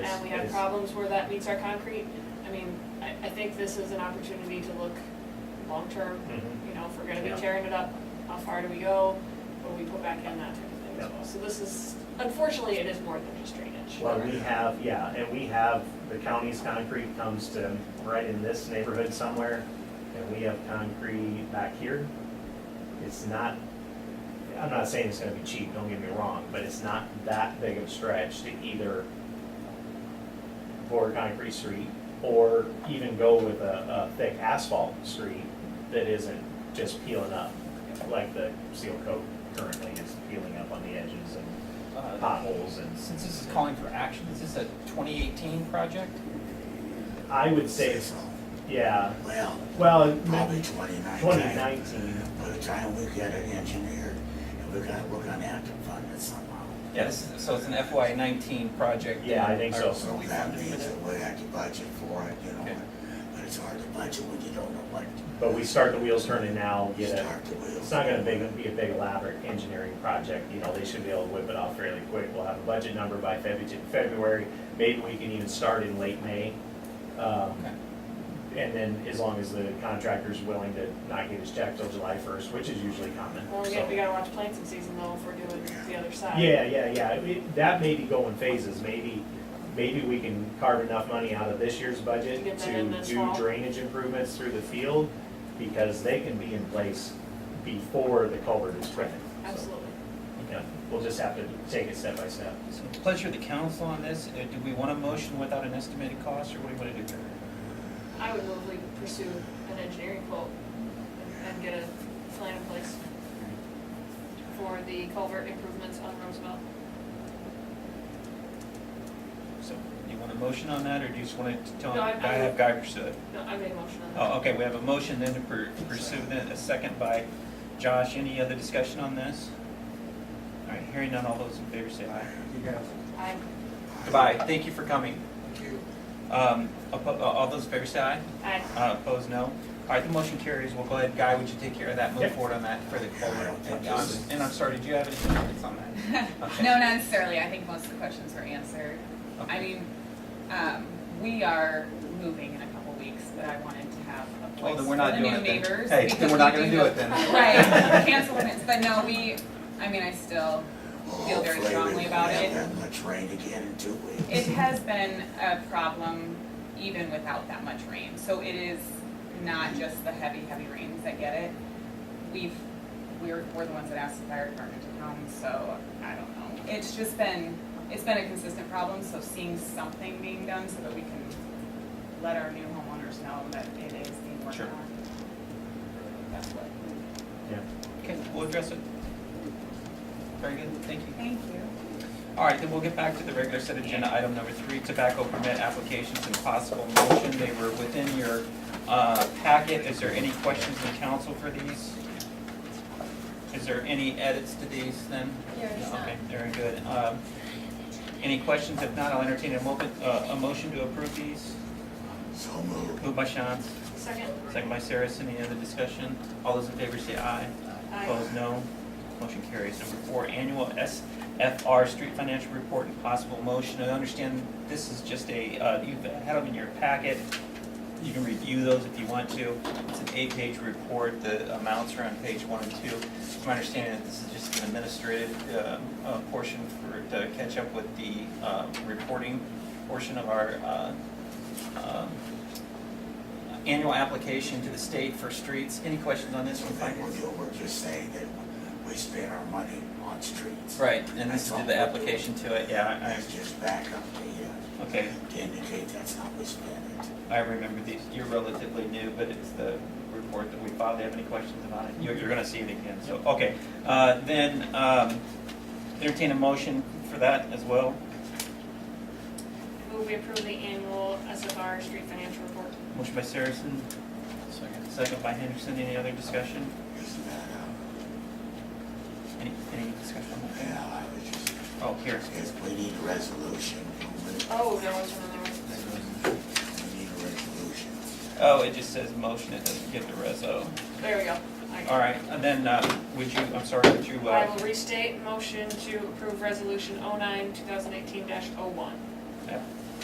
had problems where that meets our concrete. I mean, I, I think this is an opportunity to look long-term, Mhm. you know, if we're gonna Yeah. be tearing it up, how far do we go? What do we put back in, that type of thing as Yeah. well. So this is, unfortunately, it is more than just drainage. Well, we have, yeah, and we have, the county's concrete comes to right in this neighborhood somewhere, and we have concrete back here. It's not, I'm not saying it's gonna be cheap, don't get me wrong, but it's not that big of a stretch to either pour concrete street or even go with a, a thick asphalt street that isn't just peeling up, like the seal coat currently is peeling up on the edges and Uh, potholes and Since this is calling for action, is this a 2018 project? I would say, it's- yeah, Well, well, probably twenty nineteen. 2019. By the time we get it engineered, and we're gonna, we're gonna have to fund it somehow. Yes. So it's an FY19 project? Yeah, I think so. So that means that we have to budget for it, you know, Okay. but it's hard to budget when you don't know what but we start the wheels turning now, to get a, start the wheels. it's not gonna big, be a big elaborate engineering project, you know, they should be able to whip it off fairly quick. We'll have a budget number by February, February, maybe we can even start in late May. Um, Okay. And then as long as the contractor's willing to not get his check till July first, which is usually common, Well, we so. gotta, we gotta watch planting season though, if we're doing the other side. Yeah, yeah, yeah, I mean, that may be going phases, maybe, maybe we can carve enough money out of this year's budget To get that to in this do fall. drainage improvements through the field, because they can be in place before the culvert is ready. Absolutely. Yeah, we'll just have to take it step by step. So Pleasure of the council on this. Uh, Do we want a motion without an estimated cost, or what do you want to do here? I would move we pursue an engineering quote and- and get a plan in place for the culvert improvements on Roosevelt. So you want a motion on that, or do you just want to tell? No, I- I have Geiger stood. No, I made a motion on that. Oh, okay, we have a motion then to pur- pursue then, a second by Josh. Any other discussion on this? All right, hearing none, all those in favor say aye. I, Goodbye, thank you for coming. Oh, Um, oppo- uh, All those in favor say aye. I, Uh, Opposed, no. All right, the motion carries. We'll go ahead, Guy, would you take care of that, move Yep. forward on that for the Yeah, culvert? I'll And take I'm- this. and I'm sorry, did you have any comments on that? Okay. No, not necessarily. I think most of the questions were answered. I Okay. mean, um, we are moving in a couple weeks, but I wanted to have a Well, voice then for we're not the doing new it then. neighbors. Hey, then because we're not we gonna do do know- it then. Right, cancel minutes, but no, we, I mean, I still feel very Hopefully we strongly won't about have it. that much rain again in two weeks. It has been a problem even without that much rain, so it is not just the heavy, heavy rains that get it. We've, we're, we're the ones that asked the fire department to come, so I don't know. It's just been, it's been a consistent problem, so seeing something being done so that we can let our new homeowners know that it is being worked Sure. on. That's what, Yeah. Okay, we'll address it. Very good, thank you. thank you. All right, then we'll get back to the regular set agenda, item number three, tobacco permit applications and possible motion. They were within your uh, packet. Is there any questions in council for these? Is there any edits to these then? There is not. Okay, very good. Um, Any questions? If not, I'll entertain a mo- uh, a motion to approve these. So moved. Moved by Shantz, second, second by Saris. Any other discussion? All those in favor say aye. I, Opposed, no. Motion carries. Number four, annual SFR street financial report and possible motion. I understand this is just a, uh, you've had them in your packet. You can review those if you want to. It's an eight-page report. The amounts are on page one and two. It's my understanding that this is just an administrative uh, uh, portion for, to catch up with the uh, reporting portion of our uh, um, annual application to the state for streets. Any questions on this So one? then Mike? we're, ju- we're just saying that we spend our money on streets. Right, and this is the application to it, yeah, That's just back up to, I, okay, uh, to indicate that's how we spend it. I remember these, you're relatively new, but it's the report that we filed, do you have any questions about it? You're, you're gonna see it again, so, okay, uh, then, um, entertain a motion for that as well. move we approve the annual SFR street financial report. Motion by Saracen. Second. Second by Henderson, any other discussion? Isn't that, uh, Any, any discussion? on that? yeah, I was just, Oh, here, if we need a resolution, we Oh, there was another one. we need a resolution. oh, it just says motion, it doesn't give the reso. There we go. I- All right, and then, uh, would you, I'm sorry, would you, I uh, will oh restate motion to approve resolution 09, 2018-01. yeah,